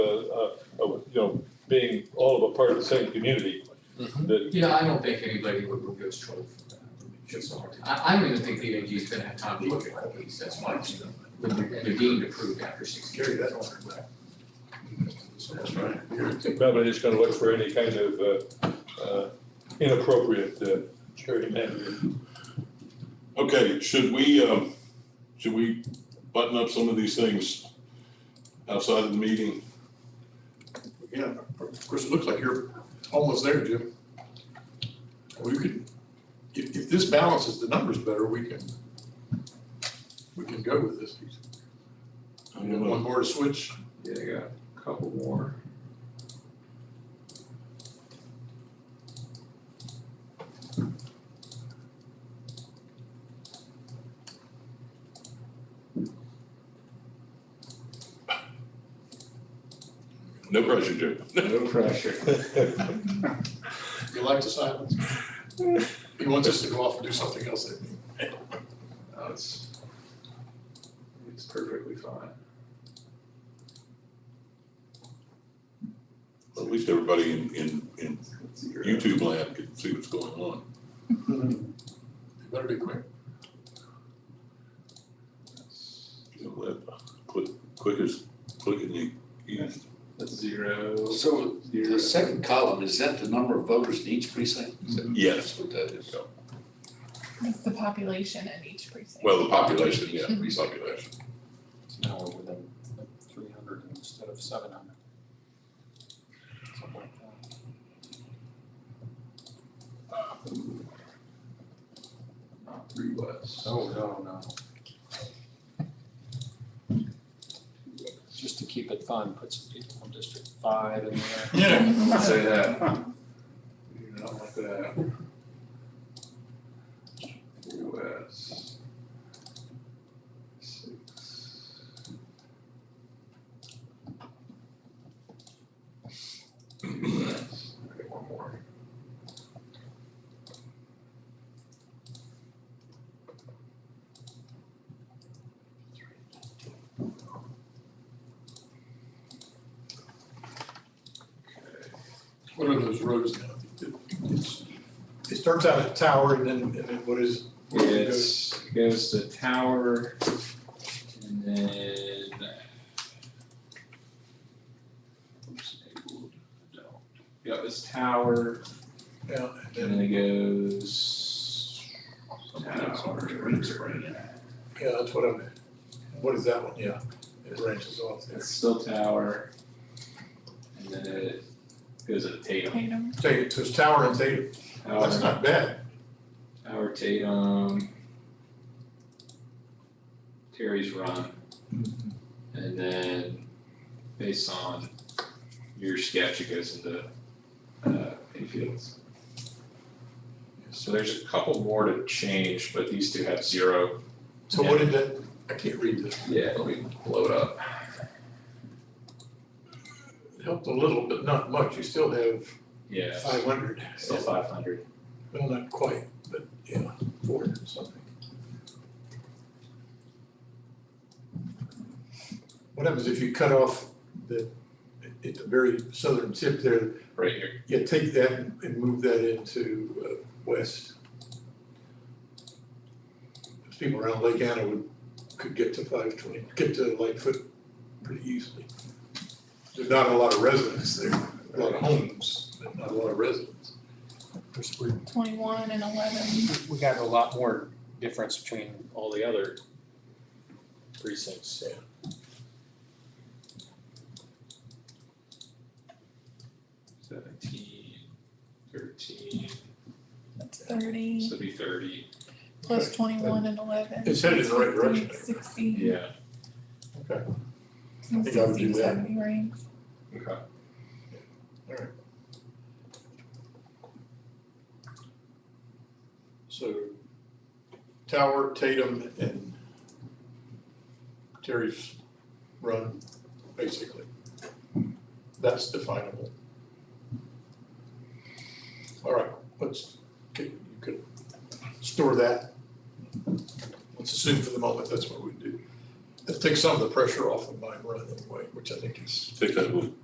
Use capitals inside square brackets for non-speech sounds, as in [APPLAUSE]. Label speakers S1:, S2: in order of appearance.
S1: uh, know, being all of a part of the same community,
S2: Mhm.
S1: that,
S3: Yeah, I don't think anybody would remove those trouble from that. It's hard. I, I don't even think the AG is gonna have time to look at all these, that's why it's, they're deemed approved after six years.
S4: That's right.
S1: probably just gonna look for any kind of, uh, uh, inappropriate, uh, behavior. [LAUGHS]
S4: Okay, should we, um, should we button up some of these things outside of the meeting?
S5: Yeah, of course, it looks like you're almost there, Jim. We could, if, if this balances the numbers better, we can, we can go with this.
S4: I don't know.
S5: One more to switch.
S2: Yeah, I got a couple more.
S4: No pressure, Jim.
S2: No pressure.
S5: You like the silence? He wants us to go off and do something else. that-
S2: No, it's, it's perfectly fine.
S4: At least everybody in, in, in YouTube land can see what's going on.
S5: It Better be quick.
S4: You know, that Quick, quick as, quick and you, you-
S2: That's zero.
S6: So
S2: Zero.
S6: the second column, is that the number of voters in each precinct? Is that-
S4: yes.
S6: That's what that is.
S7: It's the population in each precinct.
S4: Well, the population, yeah, repopulation.
S8: Now we're within three hundred instead of seven hundred. Something like that.
S2: Not three less.
S8: Oh, no, no. Just to keep it fun, put some people from District Five in there.
S5: Yeah.
S2: Say that. Do not want that. US. Six. US, okay, one more.
S5: What are those rows now? It- it's- It starts out at Tower and then, and then what is? what is it goes-
S2: It's, goes to tower and then. Oops, enabled, no. Yeah, it's tower
S5: Yeah, and
S2: and
S5: then,
S2: then it goes. Tower.
S5: yeah, that's what I'm, what is that one? Yeah, it branches off there.
S2: It's still tower. And then it goes to Tatum.
S7: Tatum.
S5: Take it to its Tower and Theta. That's
S2: Tower,
S5: not bad.
S2: tower Tatum. Terry's run.
S5: Mm-hmm.
S2: And then based on your sketch, it goes into uh Hayfields. So there's a couple more to change, but these two have zero.
S5: So what did that, I can't read this.
S2: Yeah, let me blow it up.
S5: It Helped a little, but not much. You still have
S2: Yeah,
S5: five hundred.
S2: still five hundred.
S5: Well, not quite, but yeah, four hundred something. What happens if you cut off the, at the very southern tip there,
S2: Right here,
S5: you take that and move that into uh, west? Those People around Lake Anna would, could get to five twenty, get to Lightfoot pretty easily. There's not a lot of residents there, a lot of homes, but not a lot of residents.
S8: Of course, we-
S7: Twenty-one and eleven.
S8: We got a lot more difference between all the other precincts, so.
S2: seventeen, thirteen,
S7: That's thirty
S2: so it'd be thirty.
S7: plus twenty-one and eleven.
S5: It's headed in the right direction.
S7: Sixty,
S2: Yeah,
S5: I think I would do
S7: sixty,
S5: that.
S7: seventy range.
S2: okay.
S5: So Tower, Tatum, and Terry's run, basically. That's definable. All right, let's, okay, you could store that. Let's assume for the moment that's what we do. That takes some of the pressure off of mine run anyway, which I think is
S4: Take that little